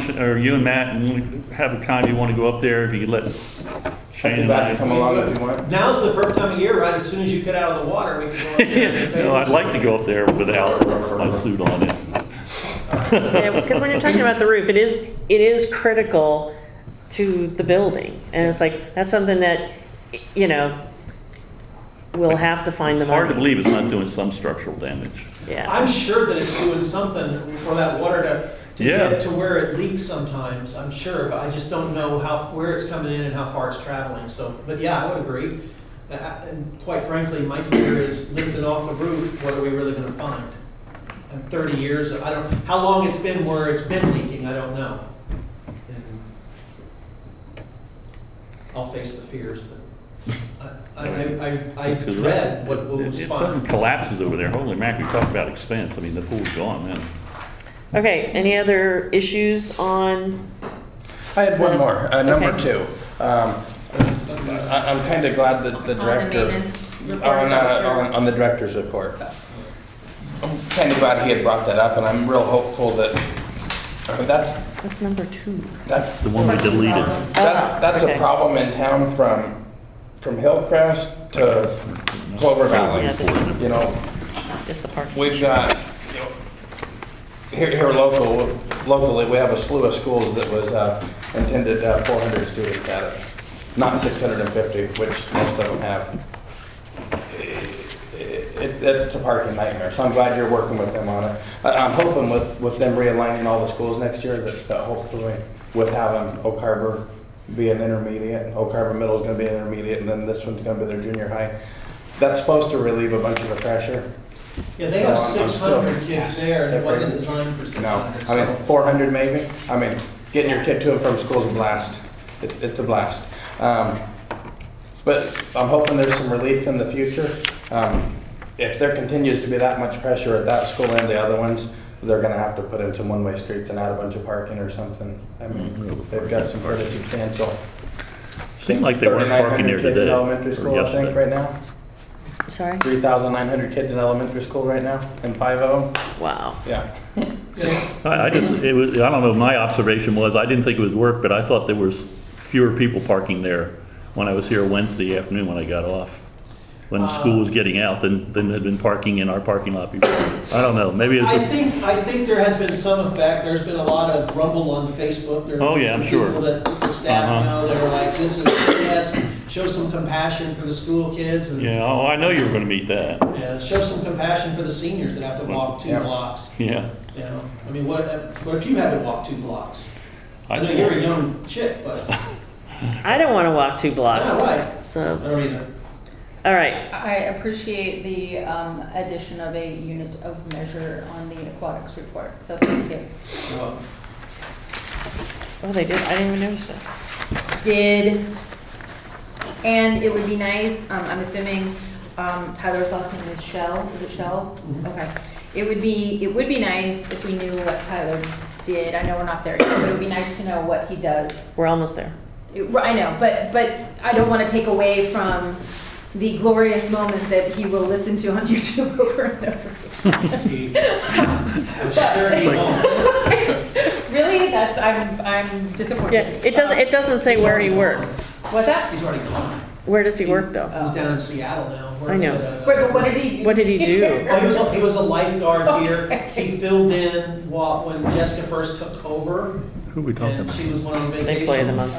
should, or you and Matt, and have a time you want to go up there, if you could let Shane and Back and come I. along if you want. Now's the perfect time of year, right? As soon as you get out of the water, we can go. up there and No, I'd like to go up there without my suit on it. Because when you're talking about the roof, it is, it is critical to the building. And it's like, that's something that, you know, we'll have to find the It's hard to money. believe it's not doing some structural damage. Yeah. I'm sure that it's doing something for that water to, to Yeah. get to where it leaks sometimes, I'm sure, but I just don't know how, where it's coming in and how far it's traveling, so, but yeah, I would agree. Uh, And quite frankly, my fear is lift it off the roof, what are we really gonna find? In thirty years, I don't, how long it's been where it's been leaking, I don't know. And I'll face the fears, but I, I, I- I Because dread what if- will If something respond. collapses over there, holy mackerel, you talk about expense, I mean, the pool's gone now. Okay, any other issues on, I had one more, uh, number Okay. two. Um, I, I'm kind of glad that the the director. maintenance report On, is uh, up here. on, on the director's report. I'm kind of glad he had brought that up and I'm real hopeful that, uh, that's, what's number two? that's, The one we uh, deleted. Ah, that, that's a okay. problem in town from, from Hillcrest to Clover Yeah, Valley. this one You know, is the parking. We've got, you know, here, here local, locally, we have a slew of schools that was uh, intended uh, 400 students at it, not 650, which most of them have. It, it's a parking nightmare, so I'm glad you're working with them on it. I, I'm hoping with, with them realigning all the schools next year, that, that hopefully, with having Oak Harbor be an intermediate, and Oak Harbor Middle is gonna be an intermediate, and then this one's gonna be their junior high. That's supposed to relieve a bunch of the pressure. Yeah, they have So I'm- I'm six still- hundred kids there, and it wasn't designed for six No, hundred, I mean, so. four hundred maybe, I mean, getting your kid to and from school is a blast, it, it's a blast. Um, but I'm hoping there's some relief in the future. Um, if there continues to be that much pressure at that school and the other ones, they're gonna have to put in some one-way streets and add a bunch of parking or something. I mean, they've got some pretty substantial. Seemed like they weren't parking there 3,900 kids in today. elementary or school, I think, yesterday. right now, Sorry? three thousand nine hundred kids in elementary school right now, and five of them, Wow. yeah. I, I just, it was, I don't know, my observation was, I didn't think it would work, but I thought there was fewer people parking there when I was here Wednesday afternoon when I got off, when the school Um, was getting out than, than had been parking in our parking lot before. I don't know, maybe it's I just, think, I think there has been some effect, there's been a lot of rumble on Facebook, there Oh, have been yeah, some I'm sure. people that, just the staff Uh-huh. know, they're like, this is, yes, show some compassion for the school kids, and, yeah, oh, I know you were gonna meet that, yeah, show some compassion for the seniors that have to walk two Yeah. blocks, yeah. you know? I mean, what, what if you had to walk two blocks? I I- know you're a young chick, but, I don't want to walk two yeah, blocks. right, I So, don't either. all right, I appreciate the um, addition of a unit of measure on the aquatics report, so thank you. So, oh, they did, I didn't even notice that. Did, and it would be nice, um, I'm assuming um, Tyler's last name is Shell, is it Shell? Mhm. Okay. It would be, it would be nice if we knew what Tyler did. I know we're not there yet, but it would be nice to know what he does. We're almost there. It- I know, but, but I don't want to take away from the glorious moment that he will listen to on YouTube over and over again. he- I'm sure he won't. Really? That's, I'm, I'm disappointed. Yeah, it doesn't, it doesn't say where he works. What's that? He's already gone. Where does he work, though? He's down in Seattle now. I working know. at a- Wait, but what did he? What did he do? Well, he was, a- he was a lifeguard here. He filled in while, when Jessica first took over, Who are we talking and about? she was one on vacation. They play them on.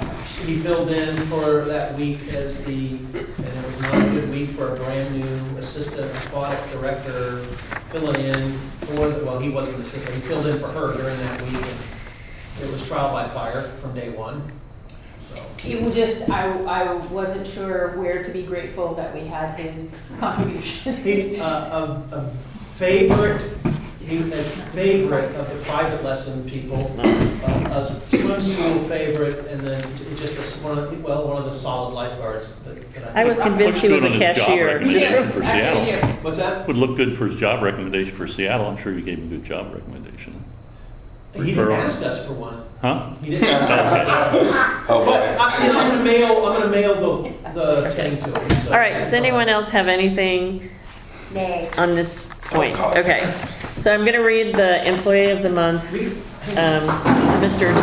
He filled in for that week as the, and it was not a good week for a brand-new assistant aquatic director filling in for, the well, he wasn't an assistant, he filled in for her during that week. and It was trial by fire from day one, so. It was just, I, I wasn't sure where to be grateful that we had his contribution. He, uh, a, a favorite, he, a favorite of the private lesson people, uh, a swim school favorite, and then j- just a, s- one of, well, one of the solid lifeguards that, that I. I was convinced he was a Looks good on his job cashier. record. Here, For actually, Seattle. here. What's that? Would look good for his job recommendation for Seattle, I'm sure you gave him a good job recommendation. He didn't Referral. ask us for one. Huh? He didn't ask us. Oh, But boy. I, you know, I'm gonna mail, I'm gonna mail the, the thing to him, so. All right, does anyone else have anything Nay. on this point? Okay, so I'm going to read the employee of the month, We- um, Mr.